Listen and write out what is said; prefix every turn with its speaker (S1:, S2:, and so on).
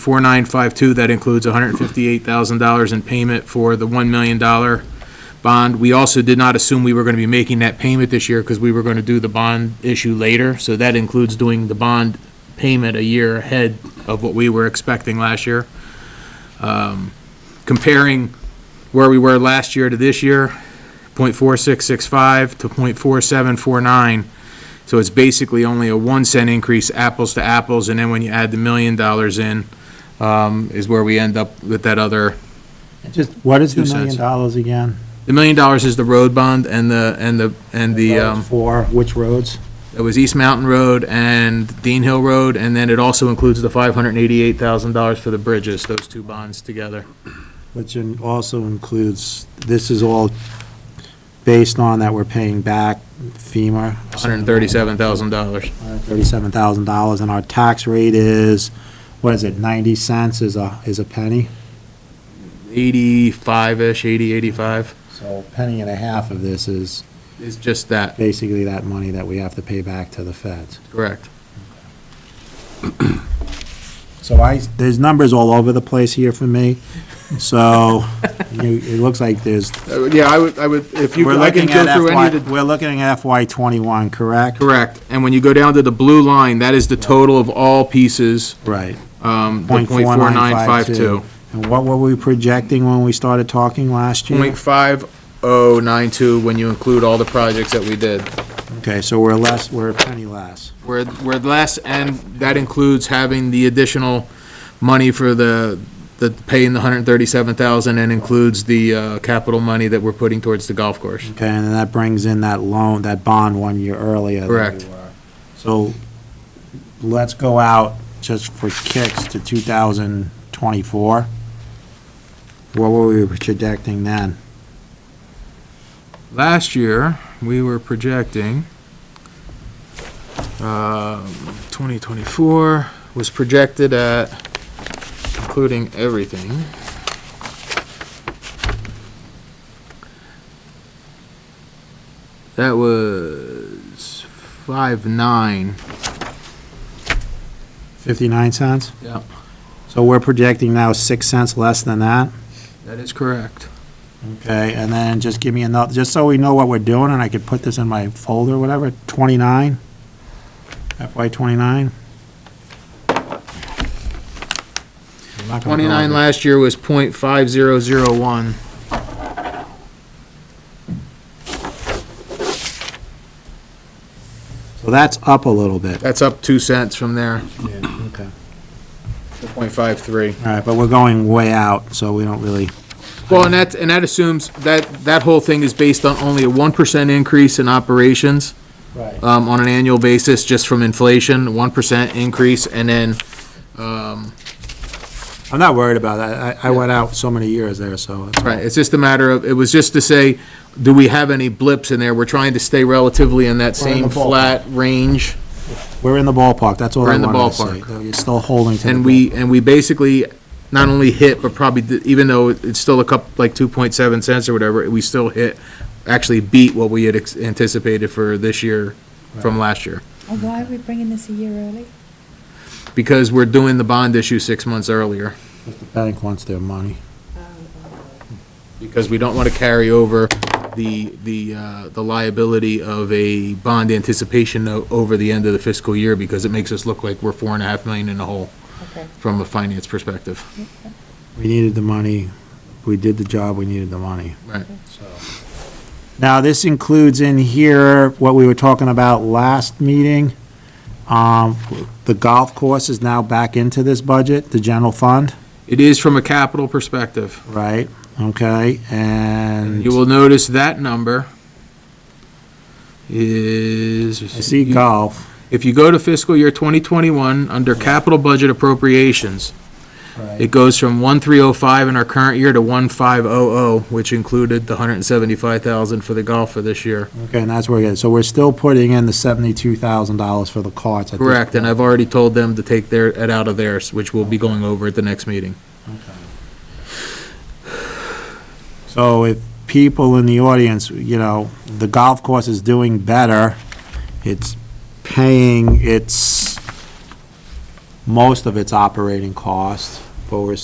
S1: 4952, that includes $158,000 in payment for the $1 million bond. We also did not assume we were going to be making that payment this year because we were going to do the bond issue later. So that includes doing the bond payment a year ahead of what we were expecting last year. Um, Comparing where we were last year to this year, .4665 to .4749. So it's basically only a one cent increase, apples to apples, and then when you add the million dollars in, um, is where we end up with that other,
S2: Just, what is the
S1: Two
S2: million
S1: cents.
S2: dollars again?
S1: the million dollars is the road bond and the, and the, and the, um,
S2: For which roads?
S1: it was East Mountain Road and Dean Hill Road, and then it also includes the five hundred and eighty-eight thousand dollars for the bridges, those two bonds together.
S2: Which in- also includes, this is all based on that we're paying back FEMA.
S1: Hundred and thirty-seven thousand dollars.
S2: Thirty-seven thousand dollars, and our tax rate is, what is it, ninety cents is a, is a penny?
S1: Eighty-five-ish, eighty, eighty-five,
S2: So a penny and a half of this is
S1: is just that,
S2: basically that money that we have to pay back to the feds.
S1: correct.
S2: So I, there's numbers all over the place here for me, so you- it looks like there's
S1: Uh, Yeah, I would, I would, if you,
S2: We're
S1: I can
S2: looking
S1: go
S2: at
S1: through any of the
S2: FY, we're looking at FY twenty-one, correct?
S1: Correct, and when you go down to the blue line, that is the total of all pieces,
S2: Right.
S1: um, the
S2: Point
S1: point
S2: four
S1: four
S2: nine
S1: nine five
S2: five
S1: two.
S2: two. And what were we projecting when we started talking last year?
S1: Point five oh nine two, when you include all the projects that we did.
S2: Okay, so we're less, we're a penny less.
S1: We're, we're less, and that includes having the additional money for the, the paying the hundred and thirty-seven thousand, and includes the, uh, capital money that we're putting towards the golf course.
S2: Okay, and then that brings in that loan, that bond one year earlier. than we
S1: Correct.
S2: were. So let's go out just for kicks to two thousand twenty-four. What were we projecting then?
S1: Last year, we were projecting, um, 2024 was projected at, including everything. That was five nine.
S2: Fifty-nine cents?
S1: Yeah.
S2: So we're projecting now six cents less than that?
S1: That is correct.
S2: Okay, and then just give me another, just so we know what we're doing, and I could put this in my folder, whatever, twenty-nine? FY twenty-nine?
S1: 29 last year was .5001.
S2: So that's up a little bit.
S1: That's up 2 cents from there,
S2: Okay.
S1: to .53.
S2: All right, but we're going way out, so we don't really,
S1: Well, and that, and that assumes, that, that whole thing is based on only a 1% increase in operations
S2: Right.
S1: um, on an annual basis, just from inflation, 1% increase, and then, um,
S2: I'm not worried about that. I, I went out so many years there, so. it's-
S1: right, it's just a matter of, it was just to say, do we have any blips in there? We're trying to stay relatively in that
S2: We're in
S1: same
S2: the ballpark.
S1: flat range.
S2: We're in the ballpark, that's all
S1: We're
S2: I
S1: in the
S2: wanted to say.
S1: ballpark.
S2: though You're still holding to the.
S1: And we, and we basically not only hit, but probably, did- even though it's still a couple, like 2.7 cents or whatever, we still hit, actually beat what we had ex- anticipated for this year from last year.
S3: And Oh, why are we bringing this a year early?
S1: because we're doing the bond issue six months earlier,
S2: ballpark. The Bank wants their money.
S1: because we don't want to carry over the, the, uh, the liability of a bond anticipation note over the end of the fiscal year, because it makes us look like we're four and a half million in the hole
S3: Okay.
S1: from a finance perspective.
S2: We needed the money. We did the job, we needed the money.
S1: Right.
S2: Now, this includes in here what we were talking about last meeting. Um, The golf course is now back into this budget, the general fund,
S1: It is from a capital perspective.
S2: right? Okay, and
S1: You will notice that number is.
S2: I see golf.
S1: If you go to fiscal year 2021, under capital budget appropriations, It goes from 1305 in our current year to 1500, oh, which included the 175,000 for the golf for this year.
S2: Okay, and that's where it is. So we're still putting in the seventy-two thousand dollars for the carts. at this
S1: Correct, and
S2: point.
S1: I've already told them to take their, it out of theirs, which we'll be going over at the next meeting.
S2: So if people in the audience, you know, the golf course is doing better, it's paying its Most of it's operating costs, but we're